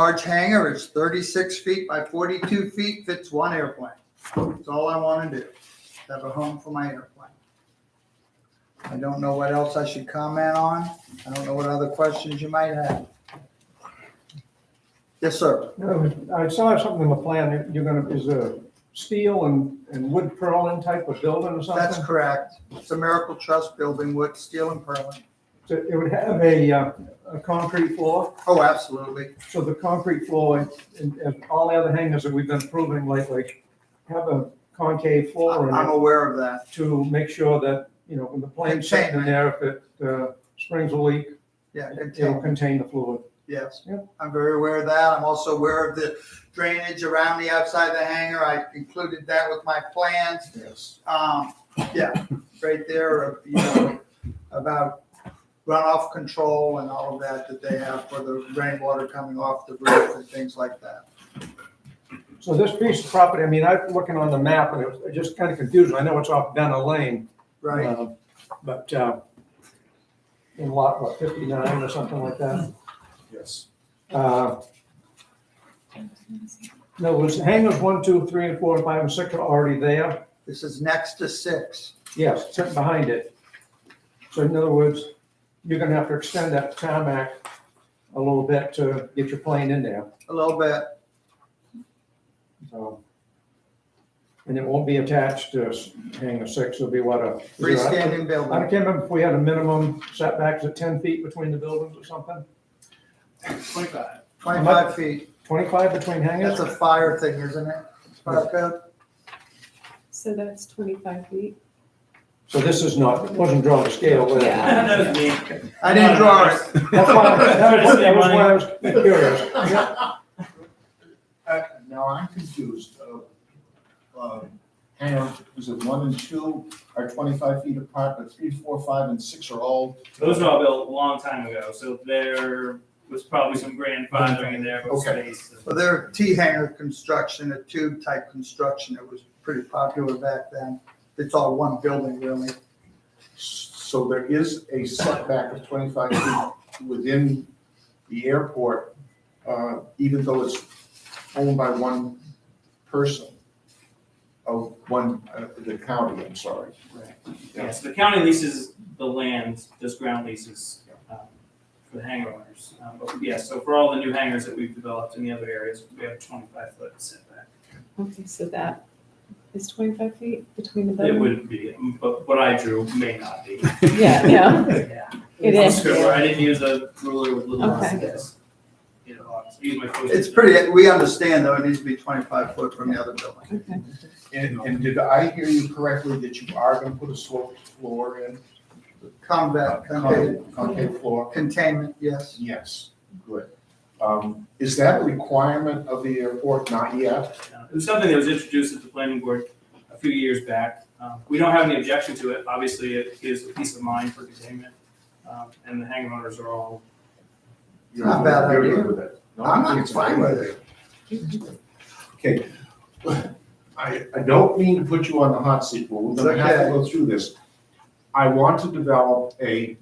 large hangar. It's thirty-six feet by forty-two feet, fits one airplane. That's all I want to do, have a home for my airplane. I don't know what else I should comment on. I don't know what other questions you might have. Yes, sir. No, I saw something in the plan, that you're gonna, is a steel and, and wood purlin type of building or That's something? correct. It's a Miracle Trust building, wood, steel and purlin. So It would have a, uh, a concrete floor, Oh, absolutely. so the concrete floor and, and all the other hangars that we've been approving lately have a concave floor in I'm it aware of that. to make sure that, you know, when the plane's sitting in there, if it, uh, springs a leak, Yeah, good it'll take. contain the fluid. yes. Yep. I'm very aware of that. I'm also aware of the drainage around the outside of the hangar. I included that with my plans. Yes. Um, yeah, right there, you know, about runoff control and all of that that they have for the rainwater coming off the roof and things like that. So this piece of property, I mean, I'm looking on the map and it was it just kind of confusing. I know it's off Dunn Lane, Right, Uh, But uh, in lot, what, 59 or something like that? Yes. Uh, No, was hangars one, two, three, and four, and five, and six are already there? this is next to six. Yes, sitting behind it. So in other words, you're gonna have to extend that tarmac a little bit to get your plane in there, A little bit, so. And it won't be attached to s- hangar six, it'll be what, a? is there a- freestanding I building. can't remember if we had a minimum setbacks of 10 feet between the buildings or something, Twenty-five. Twenty-five feet. 25 between hangars? That's a fire thing, isn't it? Fire code? So that's twenty-five feet. So this is not, it wasn't drawn to scale, was it? Yeah. I Uh, didn't draw it. That's why, that was that was why I was curious. Yeah. Uh, Now, I'm confused. uh, um, Hang on, is it one and two are twenty-five feet apart, but three, four, five, and six are all? Those were all built a long time ago, so there was probably some grandfathering in there, but Okay. space. Well, their T hanger construction, a tube type construction, it was pretty popular back then. It's all one building really. So there is a setback of twenty-five feet within the airport, uh, even though it's owned by one person. Of one, uh, the county, I'm sorry. Yes, the county leases the land, does ground leases um, for the hangar owners. Um, But yes, so for all the new hangars that we've developed in the other areas, we have a twenty-five foot setback. Okay, so that is twenty-five feet between the It buildings? would be, but what I drew may not be. Yeah, yeah, Yeah. it I'm is. scribbler, I didn't use a ruler with little Okay. lines. You know, I use my. post-it It's pretty, we understand though, it needs to be twenty-five foot from the other building. Okay. And, and did I hear you correctly that you are gonna put a sloped floor in? Uh, Combat, Concave- concave, Concave floor? containment, yes. Yes, good. Um, Is that a requirement of the airport? Not yet. Uh, It was something that was introduced at the planning board a few years back. Um, We don't have any objection to it. Obviously, it gives a peace of mind for containment, um, and the hangar owners are all. You're Not a bad you're idea. good with it. No, I'm I think not it's fine with it. Okay. I, I don't mean to put you on the hot seat, but we're gonna have Okay. to go through this. I want to develop a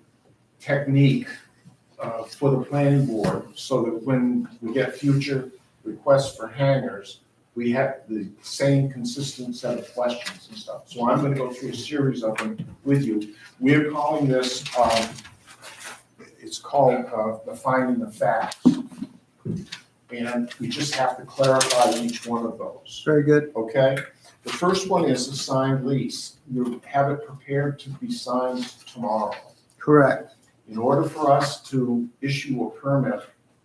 technique uh, for the planning board so that when we get future requests for hangars, we have the same consistent set of questions and stuff. So I'm gonna go through a series of them with you. We're calling this, um, it's called uh, the finding of facts. And we just have to clarify each one of those Very good. okay? The first one is a signed lease. You have it prepared to be signed tomorrow. Correct. In order for us to issue a permit,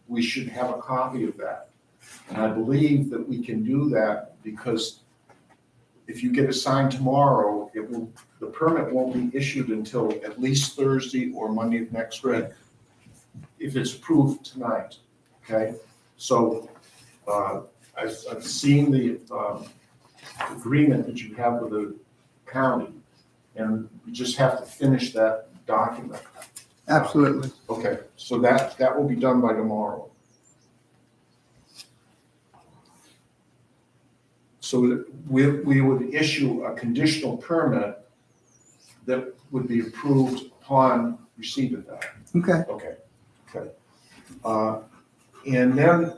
we should have a copy of that. And I believe that we can do that because if you get it signed tomorrow, it will, the permit won't be issued until at least Thursday or Monday of next week. If it's approved tonight, okay? So, uh, I've, I've seen the, um, agreement that you have with the county. And you just have to finish that document. Absolutely. Okay, so that, that will be done by tomorrow. So we, we would issue a conditional permit that would be approved upon receipt of that. Okay. Okay, okay. Uh, And then